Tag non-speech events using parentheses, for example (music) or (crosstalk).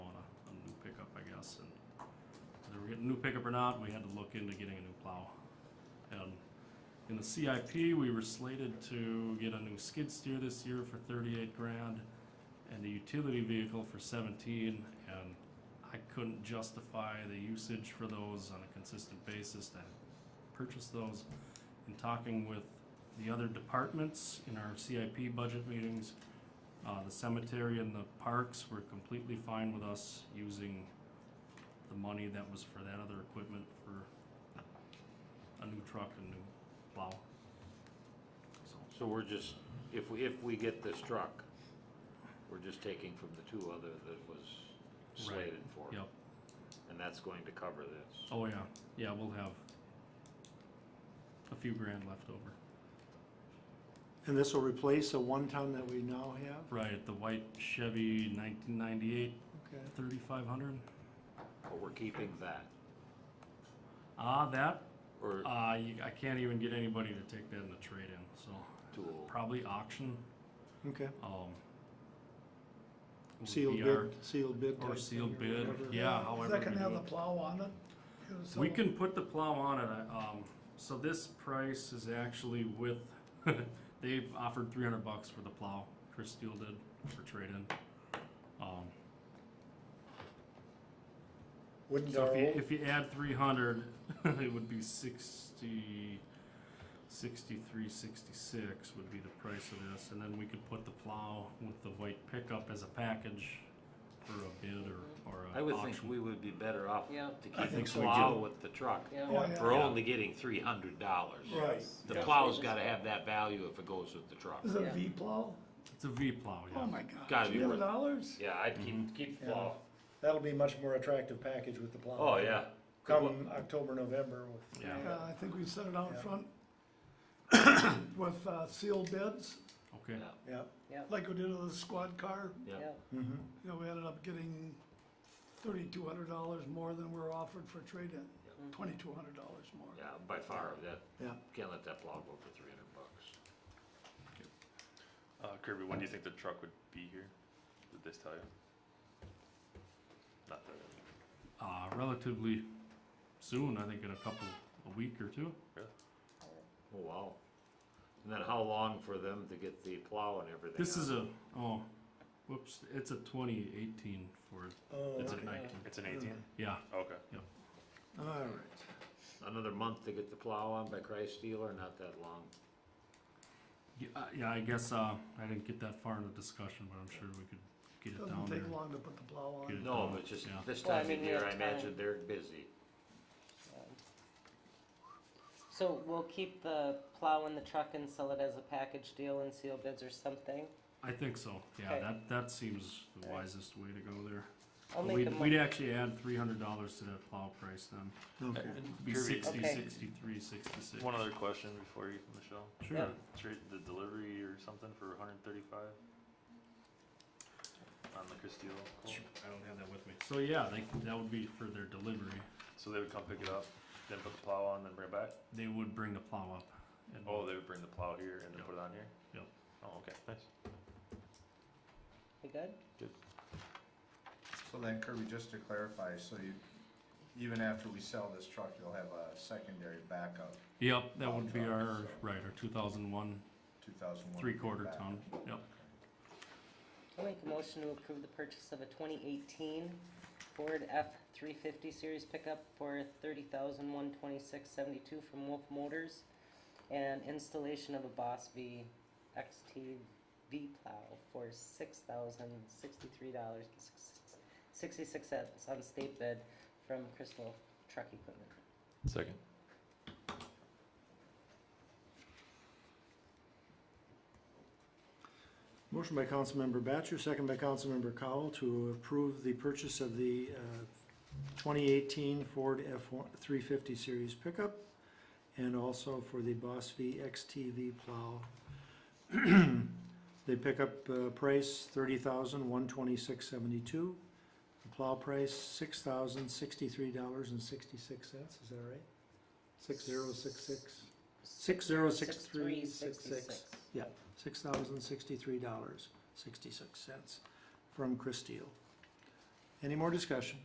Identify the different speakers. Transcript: Speaker 1: getting a new pickup or not, we had to look into getting a new plow. And in the CIP, we were slated to get a new skid steer this year for thirty-eight grand and a utility vehicle for seventeen, and I couldn't justify the usage for those on a consistent basis to purchase those. In talking with the other departments in our CIP budget meetings, uh, the cemetery and the parks were completely fine with us using the money that was for that other equipment for a new truck and new plow. So,
Speaker 2: So we're just, if we, if we get this truck, we're just taking from the two other that was
Speaker 1: Right,
Speaker 2: slated for.
Speaker 1: yep.
Speaker 2: And that's going to cover this.
Speaker 1: Oh, yeah. Yeah, we'll have a few grand left over.
Speaker 3: And this will replace a one ton that we now have?
Speaker 1: Right, the white Chevy 1998
Speaker 3: Okay.
Speaker 1: 3500.
Speaker 2: But we're keeping that,
Speaker 1: Ah, that.
Speaker 2: or
Speaker 1: Uh, you, I can't even get anybody to take that in the trade in, so
Speaker 2: too old.
Speaker 1: probably auction.
Speaker 3: Okay,
Speaker 1: Um, would
Speaker 3: sealed
Speaker 1: be our-
Speaker 3: bid, sealed bid. type
Speaker 1: Or
Speaker 3: thing
Speaker 1: sealed
Speaker 3: or
Speaker 1: bid,
Speaker 3: whatever.
Speaker 1: yeah,
Speaker 4: Is
Speaker 1: however
Speaker 4: that gonna
Speaker 1: we
Speaker 4: have
Speaker 1: do
Speaker 4: the
Speaker 1: it.
Speaker 4: plow on it? It'll sell
Speaker 1: We
Speaker 4: it.
Speaker 1: can put the plow on it, I- um, so this price is actually with, (laughs) they offered three hundred bucks for the plow, Chris Steele did, for trade-in. Um,
Speaker 4: Wouldn't
Speaker 1: so
Speaker 4: our
Speaker 1: if you,
Speaker 4: old,
Speaker 1: if you add three hundred, (laughs) it would be sixty, sixty-three, sixty-six would be the price of this, and then we could put the plow with the white pickup as a package for a bid or, or a auction.
Speaker 2: I would think we would be better off
Speaker 5: Yeah.
Speaker 2: to
Speaker 4: I
Speaker 2: keep
Speaker 4: think
Speaker 2: the
Speaker 4: so, too.
Speaker 2: plow with the truck.
Speaker 5: Yeah.
Speaker 4: Oh, yeah.
Speaker 2: We're only getting three hundred dollars.
Speaker 4: right,
Speaker 2: The
Speaker 5: Yeah.
Speaker 2: plow's gotta have that value if it goes with the truck.
Speaker 4: is it a
Speaker 5: Yeah.
Speaker 4: V plow?
Speaker 1: It's a V plow, yeah.
Speaker 4: Oh my god,
Speaker 2: Gotta be
Speaker 4: three hundred
Speaker 2: worth it.
Speaker 4: dollars?
Speaker 2: Yeah, I'd keep, keep the plow.
Speaker 6: That'll be much more attractive package with the plow.
Speaker 2: Oh, yeah.
Speaker 6: Come October, November with.
Speaker 1: Yeah.
Speaker 4: Yeah, Uh, I think we set it out
Speaker 6: Yeah.
Speaker 4: front (coughs) with uh, sealed bids,
Speaker 1: Okay,
Speaker 2: Yeah.
Speaker 6: Yeah,
Speaker 4: like we did with the squad car.
Speaker 2: Yeah.
Speaker 5: Yeah.
Speaker 4: You know, we ended up getting thirty-two hundred dollars more than we were offered for trade-in, twenty-two hundred dollars more.
Speaker 2: Yeah, by far, that,
Speaker 3: Yeah.
Speaker 2: can't let that plow go for three hundred bucks.
Speaker 7: Uh, Kirby, when do you think the truck would be here? Did this tell you? Not that.
Speaker 1: uh, relatively soon, I think in a couple, a week or two.
Speaker 2: Oh, wow. And then how long for them to get the plow and everything?
Speaker 1: This is
Speaker 2: on?
Speaker 1: a, oh, whoops, it's a twenty eighteen Ford,
Speaker 6: oh,
Speaker 1: it's a nineteen,
Speaker 7: It's an 18?
Speaker 1: yeah,
Speaker 7: Okay.
Speaker 3: All right,
Speaker 2: Another month to get the plow on by Christ dealer, not that long.
Speaker 1: yeah, uh, yeah, I guess, uh, I didn't get that far in the discussion, but I'm sure we could get it down
Speaker 4: Doesn't
Speaker 1: there.
Speaker 4: take long to put the plow
Speaker 1: Get
Speaker 4: on.
Speaker 1: it
Speaker 2: No,
Speaker 1: down,
Speaker 2: but just
Speaker 1: yeah.
Speaker 2: this
Speaker 5: Well, I
Speaker 2: time of
Speaker 5: mean, we
Speaker 2: year,
Speaker 5: have
Speaker 2: I imagine
Speaker 5: time.
Speaker 2: they're busy.
Speaker 5: So we'll keep the plow in the truck and sell it as a package deal and seal bids or something.
Speaker 1: I think so, yeah,
Speaker 5: Okay.
Speaker 1: that, that seems the
Speaker 5: Alright.
Speaker 1: wisest way to go there.
Speaker 5: I'll
Speaker 1: But
Speaker 5: make a
Speaker 1: We'd, we'd
Speaker 5: mo-
Speaker 1: actually add three hundred dollars to that plow price then,
Speaker 3: okay.
Speaker 1: It'd be
Speaker 7: Kirby,
Speaker 1: sixty,
Speaker 5: Okay.
Speaker 1: sixty-three, sixty-six.
Speaker 7: One other question before you, Michelle.
Speaker 1: Sure,
Speaker 5: Yeah.
Speaker 7: Trade the delivery or something for 135 on the Castile. Cool.
Speaker 1: Sure, I don't have that with me, so yeah, they, that would be for their delivery,
Speaker 7: So they would come pick it up, then put the plow on, then bring it back.
Speaker 1: they would bring the plow up. and-
Speaker 7: Oh, they would bring the plow here and then
Speaker 1: Yep.
Speaker 7: put it on here.
Speaker 1: Yep.
Speaker 7: Oh, okay. Nice.
Speaker 5: We good?
Speaker 8: So then Kirby, just to clarify, so you, even after we sell this truck, you'll have a secondary backup,
Speaker 1: Yep, that would be
Speaker 8: Long truck,
Speaker 1: our,
Speaker 8: so.
Speaker 1: right, our two thousand one,
Speaker 8: two thousand one.
Speaker 1: three quarter ton, yep.
Speaker 5: I'll make a motion to approve the purchase of a twenty eighteen Ford F three fifty series pickup for thirty thousand one twenty-six seventy-two from Wolf Motors and installation of a Boss V XT V plow for six thousand sixty-three dollars sixty-six cents on state bid from Crystal Truck Equipment.
Speaker 7: Second.
Speaker 3: Motion by Councilmember Batchor, second by Councilmember Cowell to approve the purchase of the uh, 2018 Ford F-350 Series pickup and also for the Boss V XTV plow. (clears throat) The pickup uh, price, $30,126.72. The plow price, $6,063.66. Is that right? 6066? 606366. Yeah, six thousand sixty-three dollars, sixty-six cents from Chris Steele. Any more discussion?